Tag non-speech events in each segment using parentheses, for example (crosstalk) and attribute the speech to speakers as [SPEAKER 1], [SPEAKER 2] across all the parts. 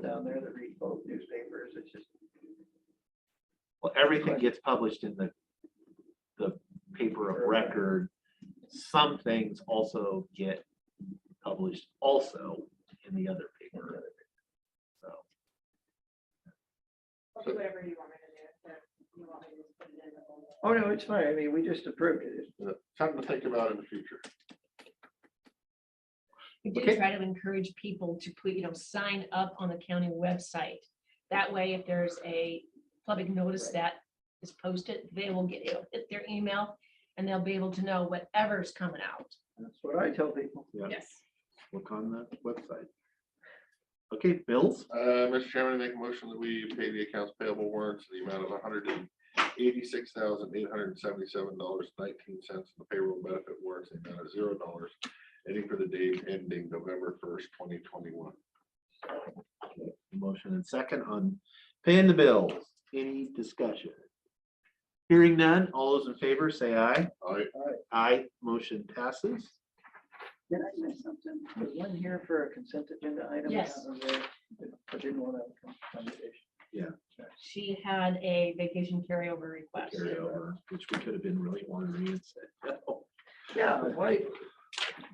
[SPEAKER 1] rather read both newspapers, it's just.
[SPEAKER 2] Well, everything gets published in the, the paper of record. Some things also get published also in the other paper. So,
[SPEAKER 3] I'll do whatever you want me to do, if you want me to just put it in the folder.
[SPEAKER 1] Oh, no, it's fine. I mean, we just approved it.
[SPEAKER 4] Yeah, Something to think about in the future.
[SPEAKER 5] We do
[SPEAKER 2] Okay.
[SPEAKER 5] try to encourage people to put, you know, sign up on the county website. That way, if there's a public notice that is posted, they will get, it'll hit their email and they'll be able to know whatever's coming out.
[SPEAKER 1] That's what I tell people.
[SPEAKER 2] Yeah.
[SPEAKER 5] Yes.
[SPEAKER 2] look on the website. Okay, bills,
[SPEAKER 4] Uh, Mr. Chairman, I make a motion that we pay the accounts payable warrants in the amount of hundred and eighty-six thousand, eight hundred and seventy-seven dollars, nineteen cents. The payroll benefit warrants in the amount of zero dollars, ending for the day ending November first, twenty twenty-one.
[SPEAKER 2] motion and second on paying the bills, any discussion? Hearing none, all those in favor say aye.
[SPEAKER 4] All right,
[SPEAKER 2] Aye, motion passes.
[SPEAKER 1] Did I miss something? Was one here for a consent agenda item?
[SPEAKER 5] Yes.
[SPEAKER 1] I didn't want to have a conversation.
[SPEAKER 5] She had a vacation carryover request.
[SPEAKER 2] Carryover, which we could have been really ornery and said, no.
[SPEAKER 1] Yeah, but why?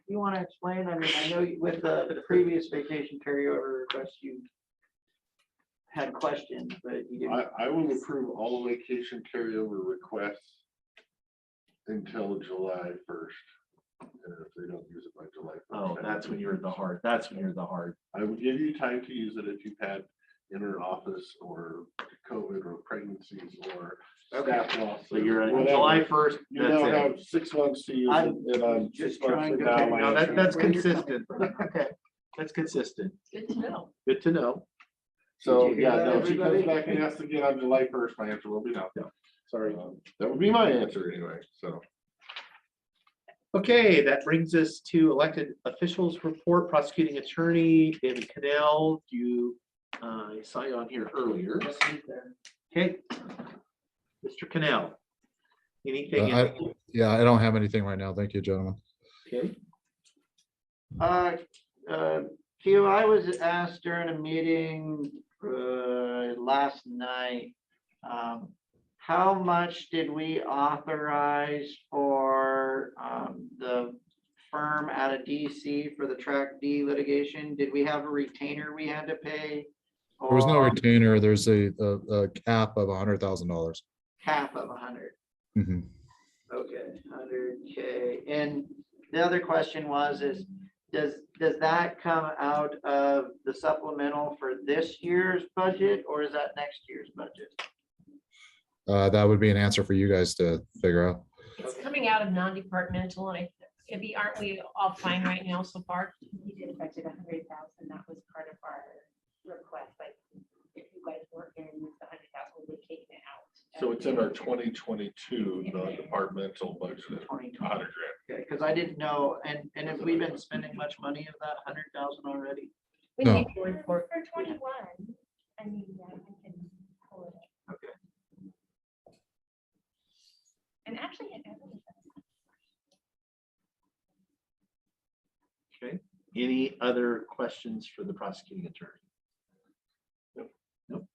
[SPEAKER 1] You want to explain? I mean, I know you- with the the previous vacation carryover request, you had questions, but you didn't.
[SPEAKER 4] I, I will approve all vacation carryover requests until July first. And if they don't use it by July. 1st,
[SPEAKER 2] Oh,
[SPEAKER 4] I
[SPEAKER 2] that's
[SPEAKER 4] will-
[SPEAKER 2] when you're at the heart. That's when you're at the heart.
[SPEAKER 4] I would give you time to use it if you've had inner office or COVID or pregnancies or staff loss.
[SPEAKER 2] So you're
[SPEAKER 4] or
[SPEAKER 2] at
[SPEAKER 4] whatever.
[SPEAKER 2] July first.
[SPEAKER 4] You
[SPEAKER 2] That's
[SPEAKER 4] now
[SPEAKER 2] it.
[SPEAKER 4] have six months to use
[SPEAKER 1] I'm
[SPEAKER 4] it. and I'm
[SPEAKER 1] just
[SPEAKER 4] six months
[SPEAKER 1] trying
[SPEAKER 4] from
[SPEAKER 1] to
[SPEAKER 4] now,
[SPEAKER 1] figure
[SPEAKER 4] my
[SPEAKER 2] No, that,
[SPEAKER 4] insurance-
[SPEAKER 2] that's
[SPEAKER 1] Where you're coming
[SPEAKER 2] consistent. Okay, that's consistent.
[SPEAKER 5] Good to know.
[SPEAKER 2] Good to know.
[SPEAKER 4] So,
[SPEAKER 1] Did you
[SPEAKER 4] yeah,
[SPEAKER 1] hear
[SPEAKER 4] no,
[SPEAKER 1] that,
[SPEAKER 4] if she comes
[SPEAKER 1] everybody?
[SPEAKER 4] back and asks again on July first, my answer will be no.
[SPEAKER 2] No.
[SPEAKER 4] Sorry, that would be my answer anyway, so.
[SPEAKER 2] Okay, that brings us to elected officials report, prosecuting attorney David Cannell. You, uh, I saw you on here earlier. Okay. Mr. Cannell. Anything?
[SPEAKER 6] Uh,
[SPEAKER 2] in-
[SPEAKER 6] Yeah, I don't have anything right now. Thank you, gentlemen.
[SPEAKER 2] Okay,
[SPEAKER 1] Uh, uh, Q, I was asked during a meeting uh, last night, um, how much did we authorize for um, the firm out of DC for the track D litigation? Did we have a retainer we had to pay?
[SPEAKER 6] There was no
[SPEAKER 1] Or
[SPEAKER 6] retainer. There's a, a, a cap of a hundred thousand dollars.
[SPEAKER 1] Half of a hundred?
[SPEAKER 6] Mhm.
[SPEAKER 1] Okay, hundred K. And the other question was is, does, does that come out of the supplemental for this year's budget or is that next year's budget?
[SPEAKER 6] Uh, that would be an answer for you guys to figure out.
[SPEAKER 5] It's coming out of non-departmental and I, it'd be, aren't we all fine right now so far?
[SPEAKER 3] We did budget a hundred thousand, that was part of our request, like, if you guys weren't gonna use the hundred thousand, we're taking it out.
[SPEAKER 4] So it's in our twenty twenty-two non-departmental budget,
[SPEAKER 1] Twenty twenty,
[SPEAKER 4] hundred grand.
[SPEAKER 1] okay, because I didn't know, and, and have we been spending much money of that hundred thousand already?
[SPEAKER 5] We
[SPEAKER 6] No.
[SPEAKER 5] need to report.
[SPEAKER 3] For twenty-one, I mean, yeah, we can pull it up.
[SPEAKER 2] Okay.
[SPEAKER 3] And actually, it doesn't.
[SPEAKER 2] okay. Any other questions for the prosecuting attorney?
[SPEAKER 4] Nope.
[SPEAKER 2] Nope.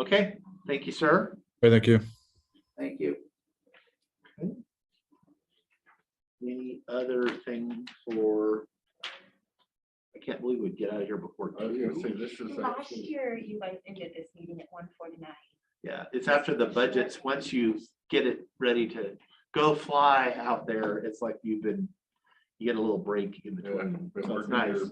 [SPEAKER 2] Okay, thank you, sir.
[SPEAKER 6] Okay, Thank you.
[SPEAKER 1] Thank you.
[SPEAKER 2] Any other thing for? I can't believe we'd get out of here before.
[SPEAKER 4] I was gonna say,
[SPEAKER 2] two.
[SPEAKER 4] this is.
[SPEAKER 3] Last
[SPEAKER 4] actually-
[SPEAKER 3] year, you guys ended this meeting at one forty-nine.
[SPEAKER 2] Yeah, it's after the budgets. Once you get it ready to go fly out there, it's like you've been, you get a little break in
[SPEAKER 4] Yeah,
[SPEAKER 2] between.
[SPEAKER 4] been
[SPEAKER 2] So it's
[SPEAKER 4] working
[SPEAKER 2] nice.
[SPEAKER 4] your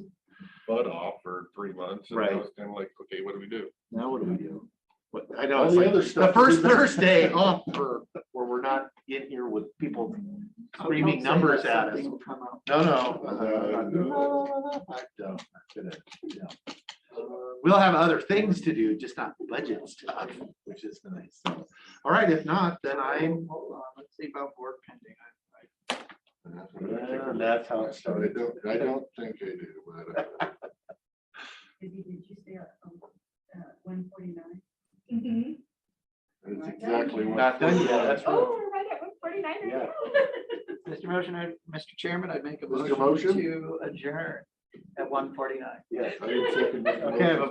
[SPEAKER 4] Butt off for three months. and
[SPEAKER 2] Right.
[SPEAKER 4] now it's Kind of like, okay, what do we do?
[SPEAKER 2] Now what do we do? What, I know,
[SPEAKER 4] All
[SPEAKER 2] it's
[SPEAKER 4] the
[SPEAKER 2] like
[SPEAKER 4] other
[SPEAKER 2] the
[SPEAKER 4] stuff
[SPEAKER 2] first
[SPEAKER 4] is in there.
[SPEAKER 2] Thursday off for, where we're not in here with people screaming numbers at us.
[SPEAKER 1] Something will come out.
[SPEAKER 2] No, no.
[SPEAKER 4] Uh, no.
[SPEAKER 2] I don't, I'm gonna, no. Uh, We'll have other things to do, just not budget stuff, which is nice. All right, if not, then I'm.
[SPEAKER 1] Hold on, let's see about board pending. I- I-
[SPEAKER 4] And that's what I think
[SPEAKER 2] Yeah,
[SPEAKER 4] we-
[SPEAKER 2] that's how it started.
[SPEAKER 4] I don't, I don't think I do, but. uh,
[SPEAKER 3] Izzy, did you say, um, uh, one forty-nine? Mm-hmm.
[SPEAKER 4] That's
[SPEAKER 3] Not done
[SPEAKER 4] exactly
[SPEAKER 3] yet.
[SPEAKER 4] what.
[SPEAKER 2] Not done yet, that's right.
[SPEAKER 3] Oh, we're right at one forty-nine
[SPEAKER 4] Yeah.
[SPEAKER 3] right now. (laughs)
[SPEAKER 1] Mr. Motion, I, Mr. Chairman, I'd make a
[SPEAKER 4] Is there a
[SPEAKER 1] motion
[SPEAKER 4] motion?
[SPEAKER 1] to adjourn at one forty-nine.
[SPEAKER 4] Yes. I would second that
[SPEAKER 2] Okay, I have a
[SPEAKER 4] motion.